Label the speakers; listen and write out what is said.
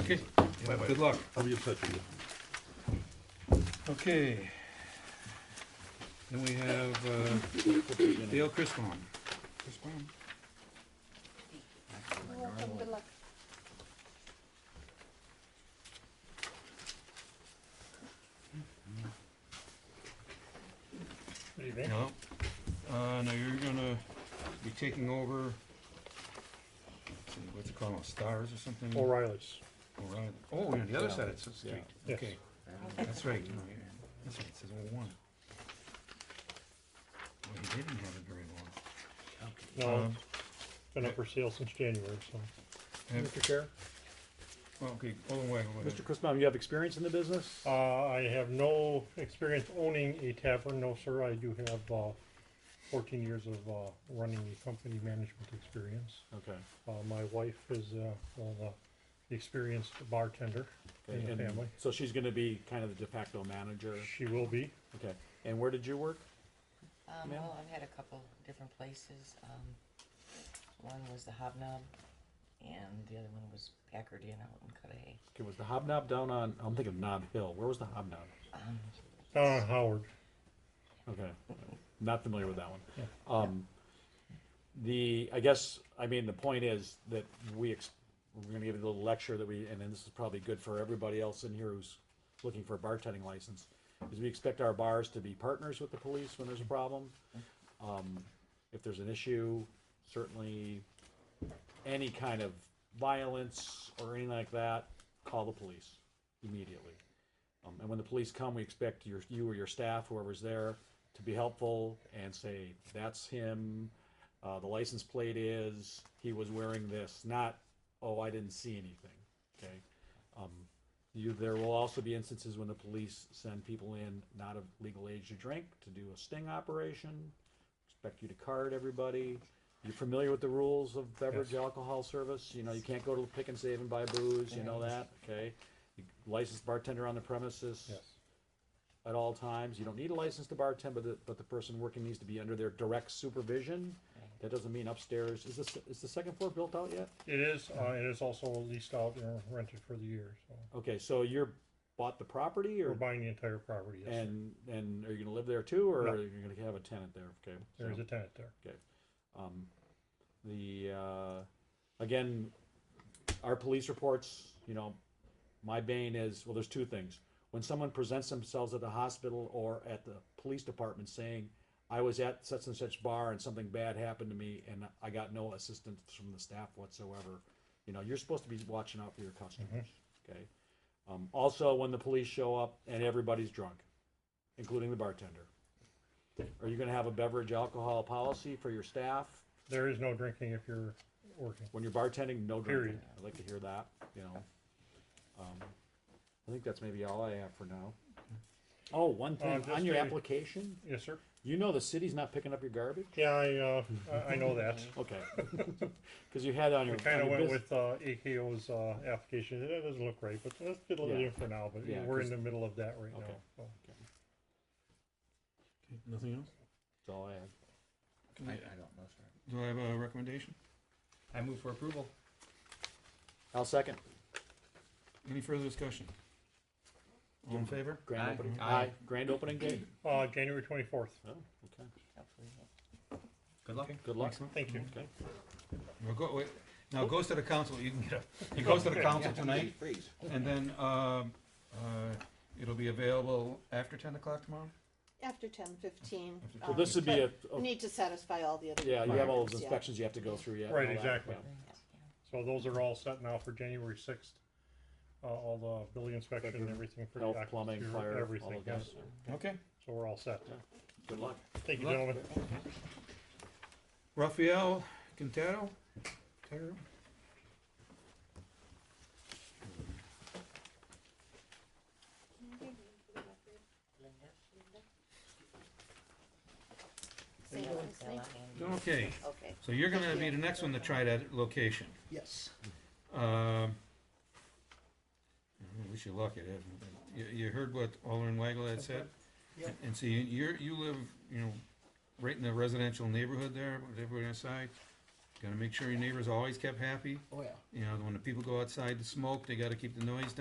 Speaker 1: Okay, good luck.
Speaker 2: I'll be in touch with you.
Speaker 1: Okay. Then we have uh, Dale Crispon. Crispon?
Speaker 3: Welcome, good luck.
Speaker 4: What do you think?
Speaker 1: No. Uh, now you're gonna be taking over, let's see, what's it called, Stars or something?
Speaker 4: O'Reilly's.
Speaker 1: O'Reilly. Oh, you're on the other side of the street.
Speaker 4: Yeah.
Speaker 1: Okay, that's right. no, yeah. That's right, it says 01. Well, he didn't have it very long.
Speaker 4: No,
Speaker 1: Um,
Speaker 4: it's been up for sale since January, so.
Speaker 1: have-
Speaker 5: Mr. Chair,
Speaker 1: well, Okay, hold on, wait, wait, wait.
Speaker 5: Mr. Christbaum, you have experience in the business?
Speaker 4: Uh, I have no experience owning a tavern, no sir. I do have, uh, fourteen years of, uh, running a company management experience.
Speaker 5: Okay.
Speaker 4: Uh, my wife is, uh, well, uh, the experienced bartender in the
Speaker 5: And-
Speaker 4: family.
Speaker 5: So she's gonna be kind of the de facto manager,
Speaker 4: She will be.
Speaker 5: okay, and where did you work?
Speaker 6: Um,
Speaker 5: Ma'am?
Speaker 6: well, I've had a couple different places. Um, one was the Hobnob, and the other one was Packard Inn out in Cudahy.
Speaker 5: Okay, was the Hobnob down on, I'm thinking of Knob Hill, where was the Hobnob?
Speaker 6: Um,
Speaker 4: Down on Howard.
Speaker 5: Okay, not familiar with that one. Um, the, I guess, I mean, the point is that we, ex- we're gonna give you a little lecture that we, and then this is probably good for everybody else in here who's looking for a bartending license, is we expect our bars to be partners with the police when there's a problem. Um, if there's an issue, certainly any kind of violence or anything like that, call the police immediately. Um, and when the police come, we expect your, you or your staff, whoever's there, to be helpful and say, that's him, uh, the license plate is, he was wearing this, not, oh, I didn't see anything, okay? Um, you, there will also be instances when the police send people in not of legal age to drink, to do a sting operation, expect you to card everybody. You're familiar with the rules of beverage alcohol service, you know, you can't go to the pick and save and buy booze, you know that, okay? You- Licensed bartender on the premises at all times. You don't need a license to bartend, but the, but the person working needs to be under their direct supervision. That doesn't mean upstairs. Is this, is the second floor built out yet?
Speaker 4: It is, uh, it is also leased out and rented for the year, so.
Speaker 5: Okay, so you're bought the property
Speaker 4: We're
Speaker 5: or,
Speaker 4: buying the entire property, yes. sir.
Speaker 5: and, and are you gonna live there too, or
Speaker 4: No.
Speaker 5: are you gonna have a tenant there? Okay.
Speaker 4: There
Speaker 5: so-
Speaker 4: is a tenant there.
Speaker 5: Um, the, uh, again, our police reports, you know, my bane is, well, there's two things. When someone presents themselves at the hospital or at the police department saying, I was at such and such bar and something bad happened to me and I got no assistance from the staff whatsoever, you know, you're supposed to be watching out for your customers, okay? Um, also, when the police show up and everybody's drunk, including the bartender. Are you gonna have a beverage alcohol policy for your staff?
Speaker 4: There is no drinking if you're working.
Speaker 5: When you're bartending, no drinking.
Speaker 4: Period.
Speaker 5: I'd like to hear that, you know. Um, I think that's maybe all I have for now. Oh, one
Speaker 4: Uh,
Speaker 5: thing,
Speaker 4: just
Speaker 5: on your
Speaker 4: a-
Speaker 5: application,
Speaker 4: Yes, sir?
Speaker 5: you know the city's not picking up your garbage?
Speaker 4: Yeah, I, uh, I, I know that.
Speaker 5: Okay. Cause you had on your.
Speaker 4: We kind
Speaker 5: on
Speaker 4: of
Speaker 5: your
Speaker 4: went
Speaker 5: bus-
Speaker 4: with uh, AKO's uh, application. That doesn't look right, but let's get a little
Speaker 5: Yeah.
Speaker 4: in for now. But
Speaker 5: Yeah,
Speaker 4: we're in
Speaker 5: 'cause-
Speaker 4: the middle of that right
Speaker 5: Okay.
Speaker 4: now. So.
Speaker 2: Okay, Nothing else?
Speaker 5: That's all I have.
Speaker 7: I, I don't know, sir.
Speaker 1: Do I have a recommendation?
Speaker 7: I move for approval.
Speaker 5: I'll second.
Speaker 1: Any further discussion? All in favor?
Speaker 5: Grand
Speaker 7: Aye.
Speaker 5: opening,
Speaker 7: Aye.
Speaker 5: aye, grand opening day.
Speaker 4: Uh, January 24th.
Speaker 5: Oh, okay.
Speaker 6: hopefully,
Speaker 7: Good luck.
Speaker 5: Good luck.
Speaker 1: Excellent.
Speaker 4: Thank you.
Speaker 5: Okay.
Speaker 1: Well, go, wait, now it goes to the council, you can get a, it goes to the council tonight,
Speaker 7: Freeze.
Speaker 1: and then, um, uh, it'll be available after ten o'clock tomorrow?
Speaker 3: After ten fifteen. um,
Speaker 1: After
Speaker 5: So this would be a, a-
Speaker 3: Need to satisfy all the other.
Speaker 5: yeah, you have all those
Speaker 3: requirements, yeah.
Speaker 5: inspections you have to go through yet. and
Speaker 4: Right,
Speaker 5: all that,
Speaker 4: exactly.
Speaker 5: yeah. Mm-hmm.
Speaker 4: So those are all set now for January 6th. Uh, all the building inspection and everything for the
Speaker 5: Health,
Speaker 4: occupancy,
Speaker 5: plumbing, fire, all
Speaker 4: everything.
Speaker 5: of
Speaker 4: yes.
Speaker 5: that.
Speaker 1: Okay.
Speaker 4: So we're all set.
Speaker 5: Good luck.
Speaker 4: Thank you,
Speaker 1: Good luck.
Speaker 4: gentlemen.
Speaker 1: Rafael Quintero? Quintero?
Speaker 3: Say your last name.
Speaker 6: yeah.
Speaker 1: Okay,
Speaker 3: Okay.
Speaker 1: so you're gonna be the next one to try that location.
Speaker 7: Yes.
Speaker 1: Um, I wish you luck, it is. You, you heard what Alderman Weigel had said?
Speaker 7: Yep.
Speaker 1: And see, you're, you live, you know, right in the residential neighborhood there, with everybody inside. Gotta make sure your neighbors always kept happy.
Speaker 2: Oh, yeah.
Speaker 1: You know, when the people go outside to smoke, they gotta keep the noise down.